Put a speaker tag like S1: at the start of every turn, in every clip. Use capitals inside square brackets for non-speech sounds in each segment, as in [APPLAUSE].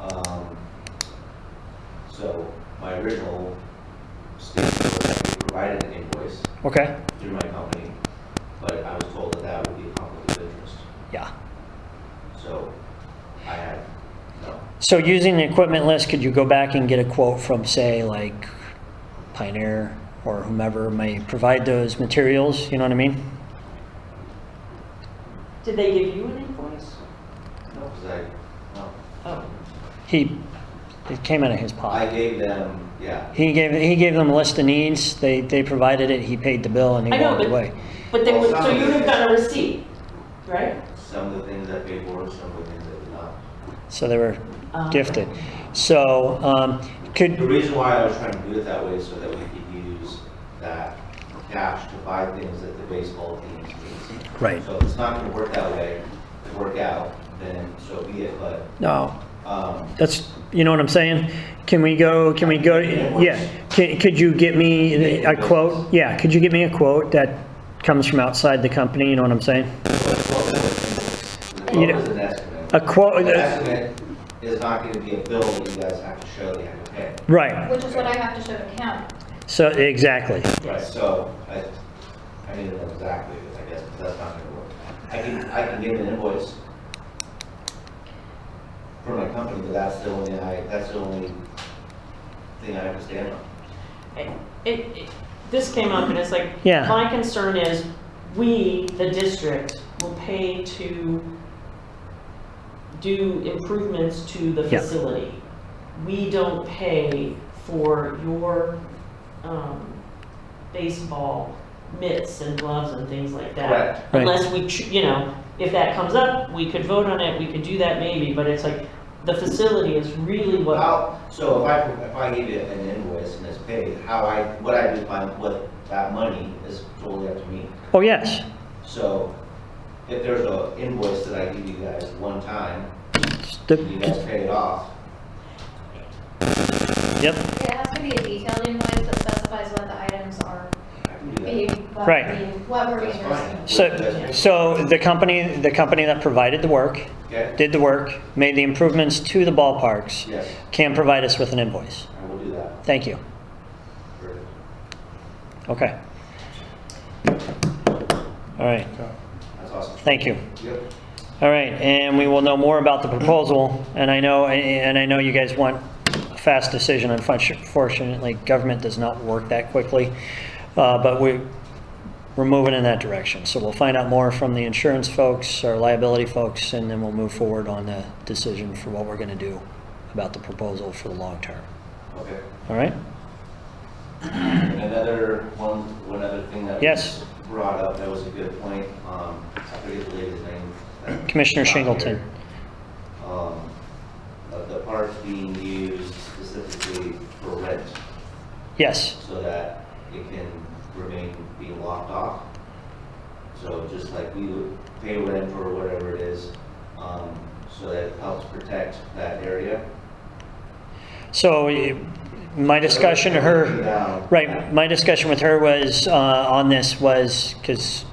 S1: Um, So my original statement was that we provided an invoice
S2: Okay,
S1: through my company, but I was told that that would be a conflict of interest.
S2: yeah.
S1: So I had, no,
S2: So using the equipment list, could you go back and get a quote from, say, like Pioneer or whomever may provide those materials, you know what I mean?
S3: Did they give you an invoice?
S1: no, because I, no.
S3: Oh,
S2: He, it came out of his
S1: I
S2: pocket.
S1: gave them, yeah,
S2: He gave, he gave them a list of needs, they, they provided it, he paid the bill and
S3: I
S2: he
S3: know,
S2: walked
S3: but,
S2: away.
S3: but they would, so
S1: Well,
S3: you would have got a receipt, right?
S1: some of the things I paid for, some of the things I did not.
S2: So they were
S3: Um,
S2: gifted. So, um, could,
S1: The reason why I was trying to do it that way is so that we could use that cash to buy things that the baseball team needs.
S2: Right.
S1: So if it's not gonna work that way, to work out, then so be it, but,
S2: no,
S1: um,
S2: That's, you know what I'm saying? Can we go, can we go, yeah, Ca- could you get me a quote? Yeah, could you get me a quote that comes from outside the company, you know what I'm saying?
S1: the
S2: You
S1: quote
S2: know, uh, oh,
S1: is an estimate.
S2: A quote,
S1: An estimate is not gonna be a bill that you guys have to show that you have to pay.
S2: right,
S4: Which is what I have to show to him.
S2: so, exactly.
S1: Right, so I, I need to know exactly, I guess, because that's not gonna work. I can, I can give an invoice for my company, but that's the only, I, that's the only thing I have to stand on.
S3: It, it, this came up and it's like,
S2: Yeah.
S3: my concern is, we, the district, will pay to do improvements to the
S2: Yeah.
S3: facility. We don't pay for your, um, baseball mitts and gloves and things like that.
S1: Correct.
S2: Right.
S3: Unless we, ch- you know, if that comes up, we could vote on it, we could do that maybe, but it's like, the facility is really what.
S1: How, so if I, if I give you an invoice and it's paid, how I, what I do with my, with that money is totally up to me.
S2: Oh, yes,
S1: So if there's a invoice that I give you guys one time, and you guys
S2: The-
S1: pay it off,
S2: yep,
S4: It has to be a detailed invoice that specifies what the items are
S1: I can do that.
S4: being, what
S2: Right.
S4: being- what we're
S1: That's
S4: being
S1: fine.
S4: received.
S2: so, so the company, the company that provided the work,
S1: Okay,
S2: did the work, made the improvements to the ballparks,
S1: yes,
S2: can provide us with an invoice.
S1: I will do that.
S2: Thank you,
S1: Perfect.
S2: okay. All right,
S1: That's awesome.
S2: thank you.
S1: Yep.
S2: All right, and we will know more about the proposal, and I know, and I know you guys want a fast decision, unfortunately, government does not work that quickly, Uh, but we, we're moving in that direction, so we'll find out more from the insurance folks, our liability folks, and then we'll move forward on the decision for what we're gonna do about the proposal for the long term,
S1: Okay.
S2: all right?
S1: And Another one, one other thing that
S2: Yes.
S1: was brought up, that was a good point, um, I forget the lady's name. that-
S2: Commissioner
S1: not
S2: Shingleton.
S1: here. Um, of the park being used specifically for rent,
S2: Yes,
S1: so that it can remain being locked off. So just like we would pay rent or whatever it is, um, so that it helps protect that area.
S2: so eh, my discussion, to her.
S1: Down.
S2: Right, my discussion with her was, uh, on this was, because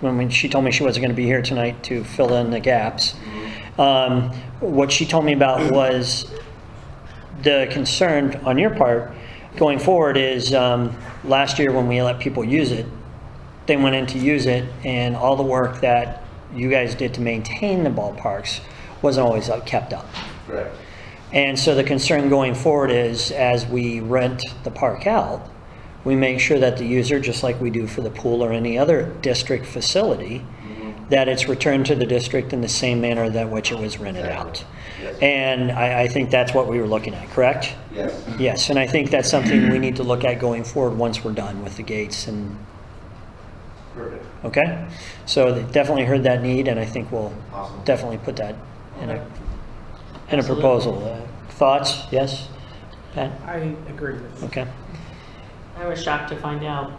S2: when when she told me she wasn't going to be here tonight to fill in the gaps, um, what she told me about was the concern on your part going forward is, um, last year when we let people use it, they went in to use it, and all the work that you guys did to maintain the ballparks wasn't always uh, kept up.
S1: Correct.
S2: And so the concern going forward is, as we rent the park out, we make sure that the user, just like we do for the pool or any other district facility,
S1: Mm-hmm.
S2: that it's returned to the district in the same manner that which it was rented out.
S1: Yes.
S2: And I, I think that's what we were looking at, correct?
S1: Yes.
S2: Yes, and I think that's something we need to look at going forward once we're done with the gates and,
S1: Perfect.
S2: okay? So they definitely heard that need, and I think we'll
S1: Awesome.
S2: definitely put that in
S1: Okay.
S2: a, in a
S3: Absolutely.
S2: proposal. Uh, Thoughts? Yes? Pat?
S5: I agree with you.
S2: Okay.
S3: I was shocked to find out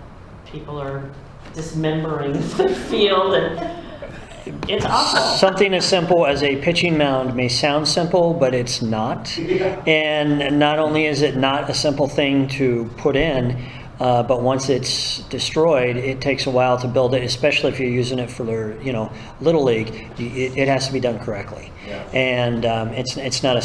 S3: people are dismembering [LAUGHS] the field and it's awful.
S2: Something as simple as a pitching mound may sound simple, but
S1: [LAUGHS]
S2: it's not. And not only is it not a simple thing to put in, uh, but once it's destroyed, it takes a while to build it, especially if you're using it for, their, you know, Little League. Y- It, it has to be done correctly.
S1: Yeah.
S2: And um, it's, it's not a